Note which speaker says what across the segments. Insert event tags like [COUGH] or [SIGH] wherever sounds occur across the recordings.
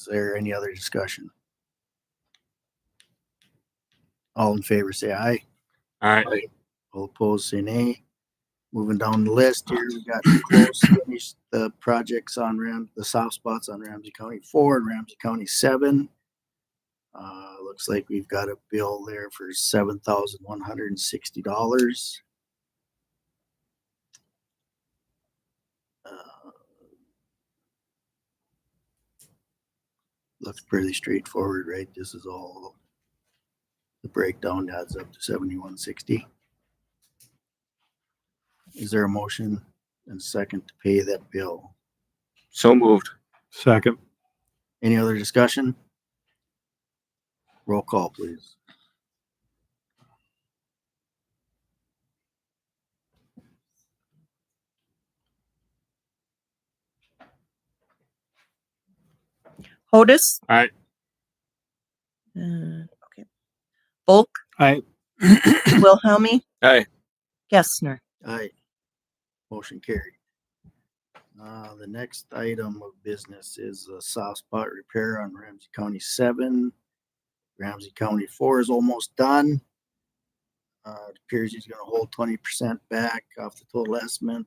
Speaker 1: Is there any other discussion? All in favor, say aye.
Speaker 2: Aye.
Speaker 1: All opposed, say nay. Moving down the list here, we got to close, finish the projects on Ram, the soft spots on Ramsey County four and Ramsey County seven. Uh, looks like we've got a bill there for seven thousand one hundred and sixty dollars. Uh, Looks pretty straightforward, right? This is all the breakdown adds up to seventy-one sixty. Is there a motion and second to pay that bill?
Speaker 2: So moved.
Speaker 3: Second.
Speaker 1: Any other discussion? Roll call, please.
Speaker 4: Hodis.
Speaker 2: Aye.
Speaker 4: Uh, okay. Bulk. [COUGHS]
Speaker 3: Aye.
Speaker 4: Wilhelmie.
Speaker 2: Aye.
Speaker 4: Gessner.
Speaker 1: Aye. Motion carried. Uh, the next item of business is a soft spot repair on Ramsey County seven. Ramsey County four is almost done. Uh, it appears he's gonna hold twenty percent back off the total estimate.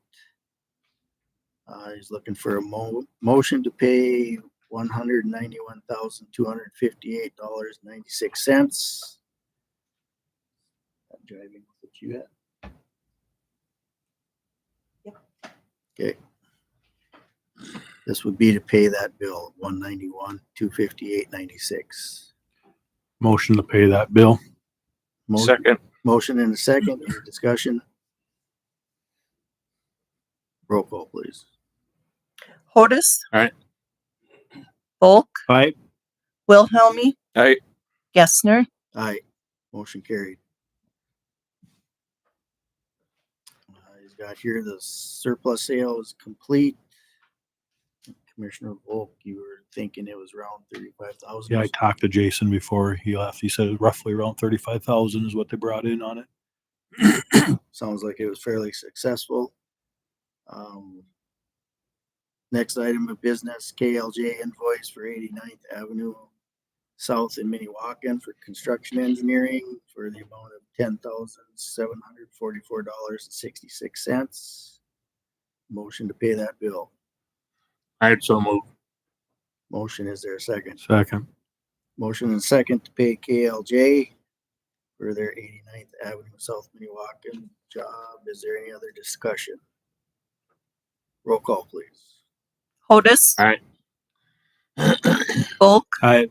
Speaker 1: Uh, he's looking for a mo- motion to pay one hundred ninety-one thousand, two hundred fifty-eight dollars, ninety-six cents. Driving, what you at? This would be to pay that bill, one ninety-one, two fifty-eight, ninety-six.
Speaker 3: Motion to pay that bill.
Speaker 2: Second.
Speaker 1: Motion and a second, any discussion? Roll call, please.
Speaker 4: Hodis.
Speaker 2: Aye.
Speaker 4: Bulk.
Speaker 3: Aye.
Speaker 4: Wilhelmie.
Speaker 2: Aye.
Speaker 4: Gessner.
Speaker 1: Aye, motion carried. Uh, He's got here the surplus sale is complete. Commissioner Volk, you were thinking it was around thirty-five thousand.
Speaker 3: Yeah, I talked to Jason before he left. He said roughly around thirty-five thousand is what they brought in on it.
Speaker 1: sounds like it was fairly successful. Um, next item of business, KLJ invoice for 89th Avenue South in Minnewacan for construction engineering for the amount of ten thousand seven hundred forty-four dollars and sixty-six cents. Motion to pay that bill.
Speaker 2: Aye. So moved.
Speaker 1: Motion, is there a second?
Speaker 3: Second.
Speaker 1: Motion and second to pay KLJ for their 89th Avenue South Minnewacan job. Is there any other discussion? Roll call, please.
Speaker 4: Hodis.
Speaker 2: Aye.
Speaker 4: Bulk.
Speaker 3: Aye.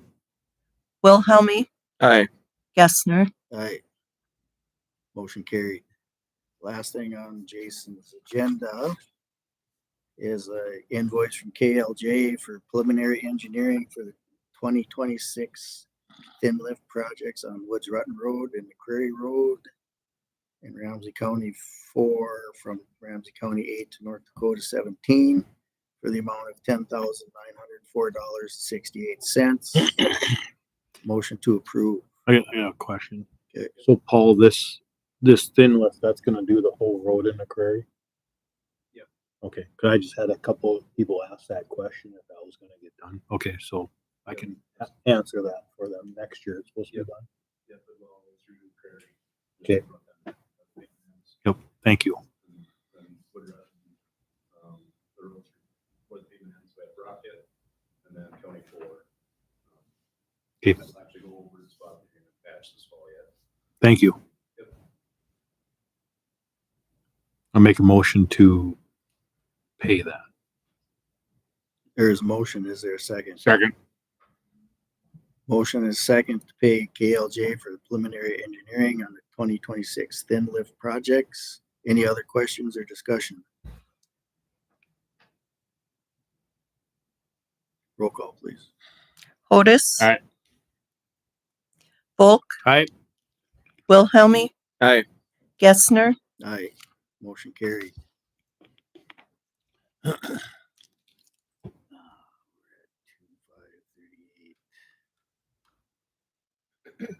Speaker 4: Wilhelmie.
Speaker 2: Aye.
Speaker 4: Gessner.
Speaker 1: Aye. Motion carried. Last thing on Jason's agenda is a invoice from KLJ for preliminary engineering for the twenty twenty-six thin lift projects on Woods Rotten Road and McCreary Road in Ramsey County four from Ramsey County eight to North Dakota seventeen for the amount of ten thousand nine hundred four dollars sixty-eight cents. Motion to approve.
Speaker 3: I got, I got a question.
Speaker 1: Okay.
Speaker 3: So Paul, this, this thin lift, that's gonna do the whole road in the quarry? Yep. Okay, cause I just had a couple of people ask that question if that was gonna get done. Okay, so I can a- answer that for them next year. It's supposed to be done. Okay. Yep, thank you. Okay. Thank you. I'll make a motion to pay that.
Speaker 1: There is motion. Is there a second?
Speaker 2: Second.
Speaker 1: Motion is second to pay KLJ for the preliminary engineering on the twenty twenty-six thin lift projects. Any other questions or discussion? Roll call, please.
Speaker 4: Hodis.
Speaker 2: Aye.
Speaker 4: Bulk.
Speaker 3: Aye.
Speaker 4: Wilhelmie.
Speaker 2: Aye.
Speaker 4: Gessner.
Speaker 1: Aye. Motion carried. [CLEARS THROAT] [CLEARS THROAT]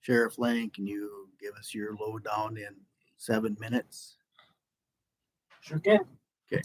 Speaker 1: Sheriff Lang, can you give us your lowdown in seven minutes?
Speaker 5: Sure can.
Speaker 1: Okay.